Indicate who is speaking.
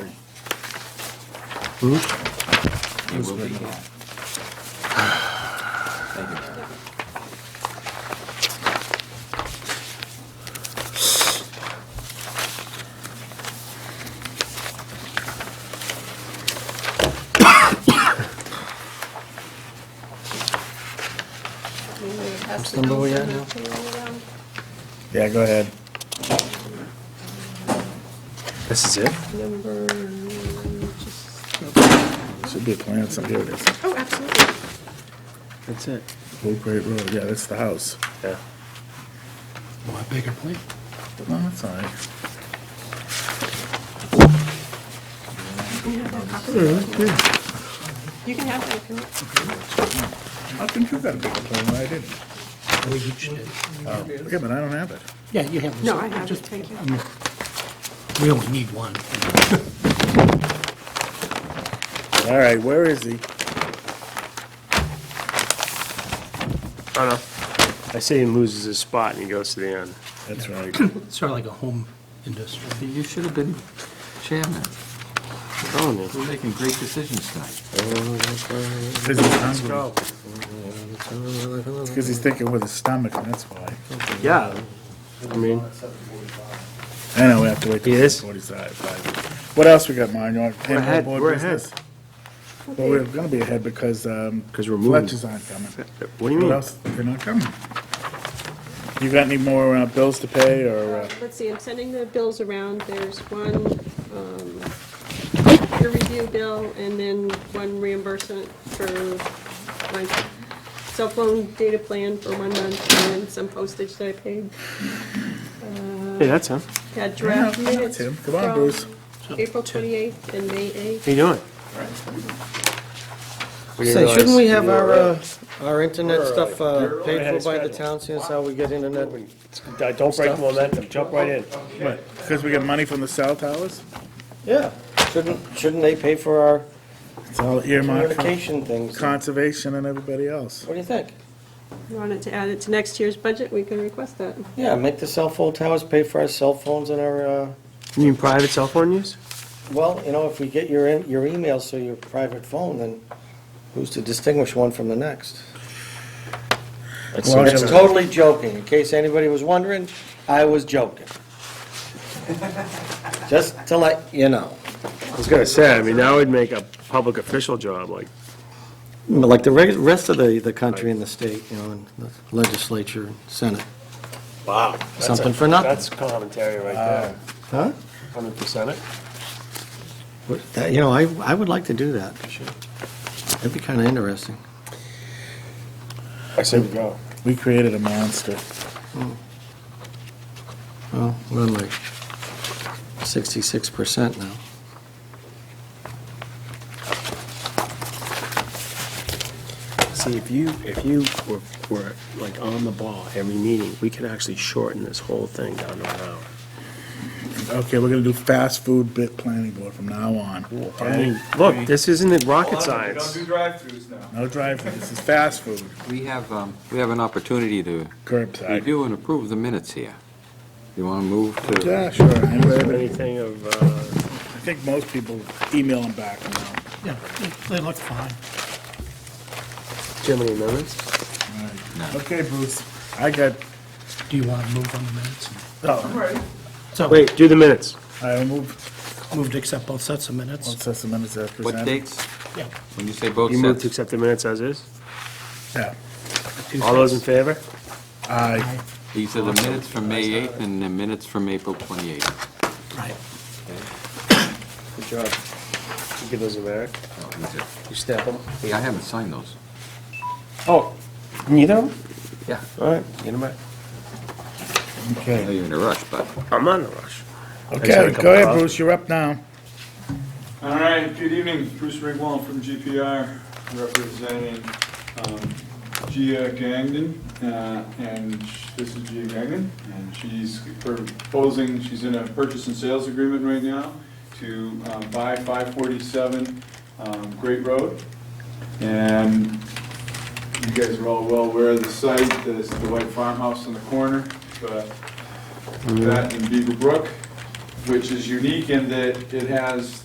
Speaker 1: It will be. Thank you, Mayor.
Speaker 2: What's
Speaker 3: the number we at now?
Speaker 4: Yeah, go ahead.
Speaker 3: This is it?
Speaker 2: Number, just,
Speaker 4: Should be a plan, so here it is.
Speaker 2: oh, absolutely.
Speaker 3: That's it.
Speaker 4: Oak Great Road, yeah, that's the house.
Speaker 3: Yeah.
Speaker 5: Want a bigger plate?
Speaker 4: No, that's all right.
Speaker 2: You can have that copy. You can have that if you want.
Speaker 4: I think you got a bigger plan than I did.
Speaker 5: We each did.
Speaker 4: Oh, Yeah, but I don't have it.
Speaker 5: Yeah, you have. this.
Speaker 2: No, I have it, thank you.
Speaker 5: We only need one.
Speaker 4: All right, where is he?
Speaker 6: I know. I say he loses his spot and he goes to the end.
Speaker 4: That's right.
Speaker 5: It's sort of like a home industry.
Speaker 1: You should have been chairman.
Speaker 6: I'm telling you.
Speaker 1: We're making great decisions tonight.
Speaker 4: Because he's hungry. Because he's thinking with his stomach, and that's why.
Speaker 6: Yeah. I mean,
Speaker 4: I know, we have to wait
Speaker 6: He
Speaker 4: till
Speaker 6: is?
Speaker 4: forty-five. five. What else we got, Mark? You want
Speaker 6: We're ahead,
Speaker 4: handle board
Speaker 6: we're ahead.
Speaker 4: business? Well, we're gonna be ahead because, um,
Speaker 6: 'Cause we're moving.
Speaker 4: Fletchers aren't coming.
Speaker 6: what do you
Speaker 4: What
Speaker 6: mean?
Speaker 4: else? They're not coming. You got any more uh, bills to pay, or, uh,
Speaker 2: Let's see, I'm sending the bills around. There's one um, peer review bill and then one reimbursement for my cell phone data plan for one month and then some postage that I paid.
Speaker 6: Hey, that's him.
Speaker 2: Had draft
Speaker 4: Yeah, yeah,
Speaker 2: minutes
Speaker 4: Tim. Come on,
Speaker 2: from
Speaker 4: Bruce.
Speaker 2: April 28th and May 8th.
Speaker 6: How you doing? We didn't
Speaker 3: Say,
Speaker 6: realize
Speaker 3: shouldn't we have
Speaker 6: you were
Speaker 3: our,
Speaker 6: around.
Speaker 3: uh, our internet stuff uh, paid
Speaker 4: ahead
Speaker 3: for
Speaker 4: of
Speaker 3: by the
Speaker 4: schedule.
Speaker 3: town, since how we get internet?
Speaker 6: Uh, Don't break the momentum, jump right in.
Speaker 4: because we got money from the cell towers?
Speaker 3: Yeah. Shouldn't, shouldn't they pay for our
Speaker 4: It's all earmarked for
Speaker 3: communication things? What
Speaker 4: conservation and everybody else.
Speaker 3: do you think?
Speaker 2: You wanted to add it to next year's budget, we can request that.
Speaker 3: Yeah, make the cell phone towers pay for our cell phones and our, uh,
Speaker 6: You mean private cell phone use?
Speaker 3: well, you know, if we get your, in- your emails through your private phone, then who's to distinguish one from the next?
Speaker 4: Well,
Speaker 3: It's
Speaker 4: yeah.
Speaker 3: totally joking, in case anybody was wondering, I was joking. Just to let you know.
Speaker 6: I was gonna say, I mean, that would make a public official job, like,
Speaker 3: But Like the reg- rest of the, the country and the state, you know, and the legislature, senate.
Speaker 6: wow. that's
Speaker 3: Something
Speaker 6: a-
Speaker 3: for nothing.
Speaker 6: That's commentary right there.
Speaker 3: Huh?
Speaker 6: Hundred percent it.
Speaker 3: But, uh, You know, I, I would like to do that. That'd be kind of interesting.
Speaker 6: I say we go.
Speaker 4: We created a monster.
Speaker 3: Well, we're like 66% now.
Speaker 6: See, if you, if you were, were like on the ball every meeting, we could actually shorten this whole thing down to an hour.
Speaker 4: Okay, we're gonna do fast food bit planning board from now on.
Speaker 6: I
Speaker 4: okay?
Speaker 6: mean, look, this isn't rocket science.
Speaker 4: No drive-through, this is fast food,
Speaker 1: We have, um, we have an opportunity to
Speaker 4: curbside.
Speaker 1: review and approve the minutes here. You want to move to?
Speaker 4: Yeah, sure. I
Speaker 6: Anything of, uh,
Speaker 4: think most people email them back now.
Speaker 5: Yeah, they look fine.
Speaker 6: too many amendments?
Speaker 1: No.
Speaker 4: Okay, Bruce, I got,
Speaker 5: Do you want to move on the minutes?
Speaker 4: oh,
Speaker 5: So
Speaker 6: Wait, do the minutes.
Speaker 4: I moved,
Speaker 5: moved to accept both sets of
Speaker 4: one
Speaker 5: minutes.
Speaker 4: set of minutes as
Speaker 1: What
Speaker 4: presented.
Speaker 1: dates?
Speaker 5: Yeah.
Speaker 1: When you say both
Speaker 6: You move to
Speaker 1: sets?
Speaker 6: accept the minutes as is?
Speaker 4: Yeah,
Speaker 5: two
Speaker 6: All those in
Speaker 5: sets.
Speaker 6: favor?
Speaker 4: I,
Speaker 1: These are the minutes from May 8th and the minutes from April 28th.
Speaker 5: Right.
Speaker 6: Good job. You Give those to Eric.
Speaker 1: Oh, these are-
Speaker 6: You stamp them.
Speaker 1: Hey, I haven't signed those.
Speaker 6: Oh, neither of them?
Speaker 1: Yeah.
Speaker 6: All right, get them back.
Speaker 1: I know
Speaker 4: okay.
Speaker 1: you're in a rush, but
Speaker 6: I'm on the rush. had a
Speaker 4: Okay,
Speaker 6: couple
Speaker 4: go ahead,
Speaker 6: of-
Speaker 4: Bruce, you're up now.
Speaker 7: All right, good evening, Bruce Ringwald from GPR, representing um, Gia Gangden, uh, and sh- this is Gia Gangden, and she's proposing, she's in a purchase and sales agreement right now to um, buy 547 um, Great Road, and you guys are all well aware of the site, there's the white farmhouse in the corner, but that in Beaver Brook, which is unique in that it has